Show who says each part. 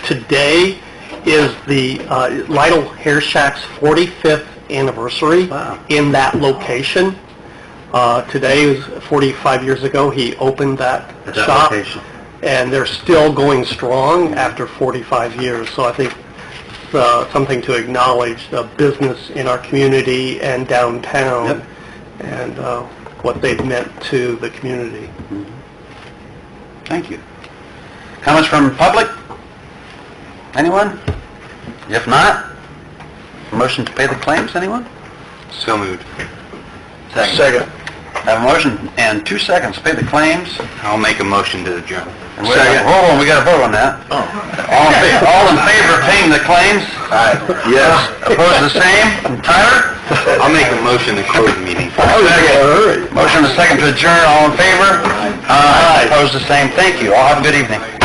Speaker 1: today is the uh, Lytle Hair Shack's 45th anniversary
Speaker 2: Wow.
Speaker 1: in that location. Uh, Today is 45 years ago, he opened that
Speaker 2: At that
Speaker 1: shop.
Speaker 2: location.
Speaker 1: And they're still going strong after 45 years, so I think it's uh, something to acknowledge, the business in our community and downtown,
Speaker 2: Yep.
Speaker 1: and uh, what they've meant to the community.
Speaker 2: Thank you. Comments from public? Anyone? If not, motion to pay the claims, anyone?
Speaker 3: So moved.
Speaker 2: Have a motion and two seconds, to pay the claims.
Speaker 3: I'll make a motion to adjourn.
Speaker 2: And wait, Hold on, we got to vote on that. All in fa- all in favor of paying the claims? Aye. Yes. Opposed, the same? And Tyler? Oh,
Speaker 3: I'll make a motion to close the meeting.
Speaker 2: Motion and a second to adjourn, all in favor? Aye. Opposed, the same? Thank you, all have a good evening.